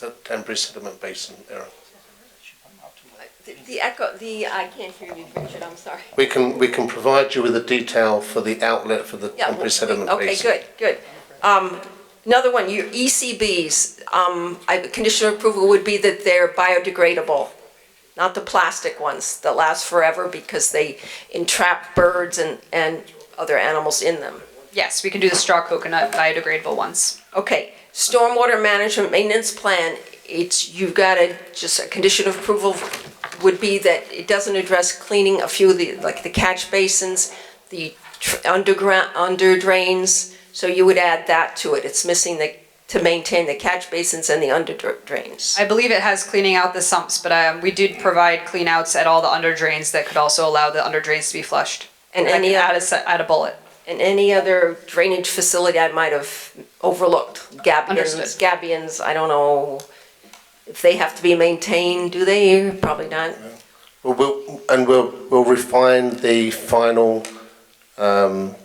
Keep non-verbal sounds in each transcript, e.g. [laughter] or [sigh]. the Danbury Sediment Basin area. The- The echo, the, I can't hear you, Richard, I'm sorry. We can, we can provide you with a detail for the outlet for the Yeah, Danbury we- Sediment Okay, Basin. good, good. Um, Another one, your ECBs, um, I- conditional approval would be that they're biodegradable, not the plastic ones that last forever because they entrap birds and, and other animals in them. Yes, we can do the straw coconut biodegradable ones. Okay, stormwater management maintenance plan, it's, you've got to, just a condition of approval would be that it doesn't address cleaning a few of the, like the catch basins, the tr- underground, under drains, so you would add that to it. It's missing the, to maintain the catch basins and the under dr- drains. I believe it has cleaning out the sumps, but um, we did provide clean outs at all the under drains that could also allow the under drains to be flushed. And I any can add other, a, se- add a bullet. and any other drainage facility I might have overlooked, gabions, Understood. gabions, I don't know if they have to be maintained, do they? Probably not. Well, We'll, and we'll, we'll refine the final, um,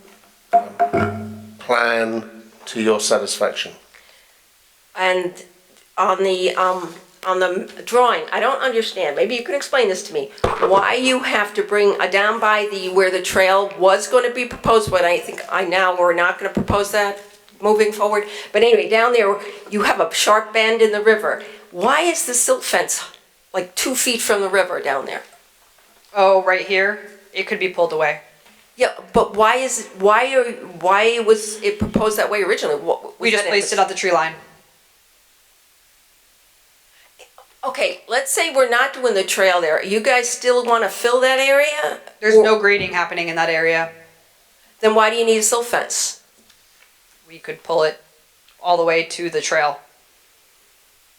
plan to your satisfaction. And on the, um, on the drawing, I don't understand, maybe you can explain this to me, why you have to bring a down by the, where the trail was gonna be proposed, but I think I now, we're not gonna propose that moving forward. But anyway, down there, you have a sharp bend in the river. Why is the silt fence like two feet from the river down there? Oh, right here, it could be pulled away. Yeah, but why is, why are, why was it proposed that way originally? What- We was just that- placed it on the tree line. Okay, let's say we're not doing the trail there. You guys still want to fill that area? There's Or- no grading happening in that area. Then why do you need a silt fence? We could pull it all the way to the trail.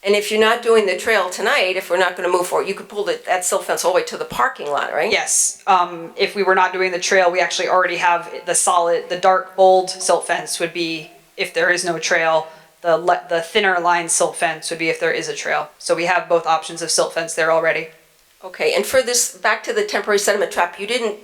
And if you're not doing the trail tonight, if we're not going to move forward, you could pull that, that silt fence all the way to the parking lot, right? Yes, um, if we were not doing the trail, we actually already have the solid, the dark bold silt fence would be if there is no trail. The le- the thinner line silt fence would be if there is a trail. So we have both options of silt fence there already. Okay, and for this, back to the temporary sediment trap, you didn't,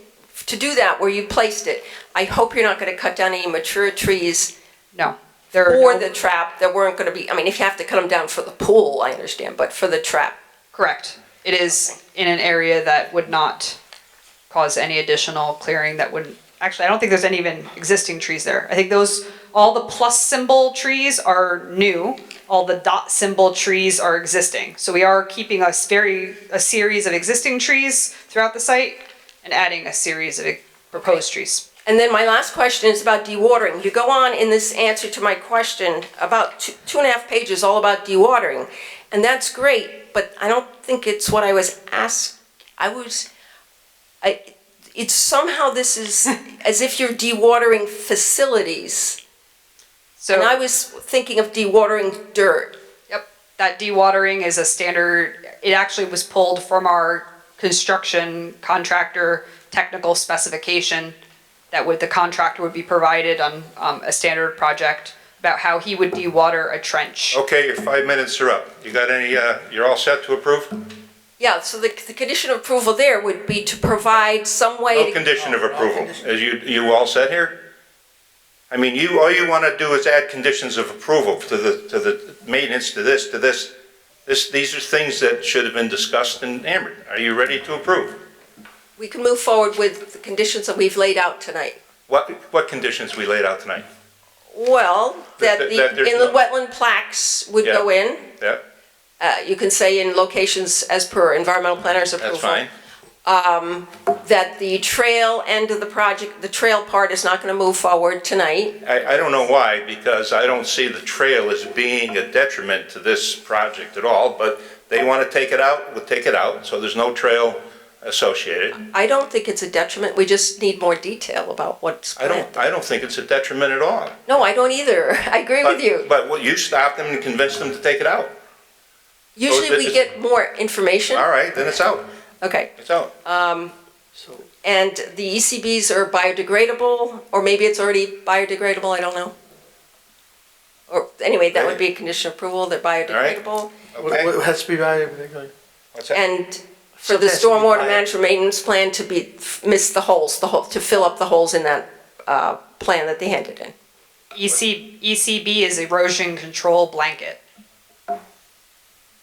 to do that where you placed it, I hope you're not going to cut down any mature trees No, there are or no- the trap that weren't going to be, I mean, if you have to cut them down for the pool, I understand, but for the trap. correct. It is in an area that would not cause any additional clearing that wouldn't. Actually, I don't think there's any even existing trees there. I think those all the plus symbol trees are new. All the dot symbol trees are existing. So we are keeping a s- very a series of existing trees throughout the site and adding a series of e- proposed trees. And then my last question is about dewatering. You go on in this answer to my question, about two, two and a half pages, all about dewatering. And that's great, but I don't think it's what I was asked, I was, I, it's somehow this is as if you're dewatering facilities. So And I was thinking of dewatering dirt. Yep, that dewatering is a standard, it actually was pulled from our construction contractor technical specification that would, the contractor would be provided on, um, a standard project about how he would dewater a trench. Okay, your five minutes are up. You got any, uh, you're all set to approve? Yeah, so the, the condition of approval there would be to provide some way No to condition of approval. Is you, you all set here? I mean, you, all you want to do is add conditions of approval to the, to the maintenance, to this, to this. This, these are things that should have been discussed and hammered. Are you ready to approve? we can move forward with the conditions that we've laid out tonight. What, what conditions we laid out tonight? Well, that That- the that there's inland no- wetland plaques would go in. Yeah. Uh, you can say in locations as per environmental planner's approval. That's fine. That the trail end of the project, the trail part is not gonna move forward tonight. I, I don't know why, because I don't see the trail as being a detriment to this project at all, but they want to take it out, we'll take it out, so there's no trail associated. I don't think it's a detriment, we just need more detail about what's I planned. don't, I don't think it's a detriment at all. No, I don't either, [laughs] I agree with you. But what, you stopped them and convinced them to take it out. Usually this we is- get more information, All right, then it's out, okay. it's out. And the ECBs are biodegradable, or maybe it's already biodegradable, I don't know. Or, anyway, that would be a condition of approval, they're right. biodegradable. Okay? It has to be valuable. What's that? And for So the that's the stormwater plan. management maintenance plan to be, miss the holes, the hole, to fill up the holes in that, uh, plan that they handed in. E EC, ECB is erosion control blanket.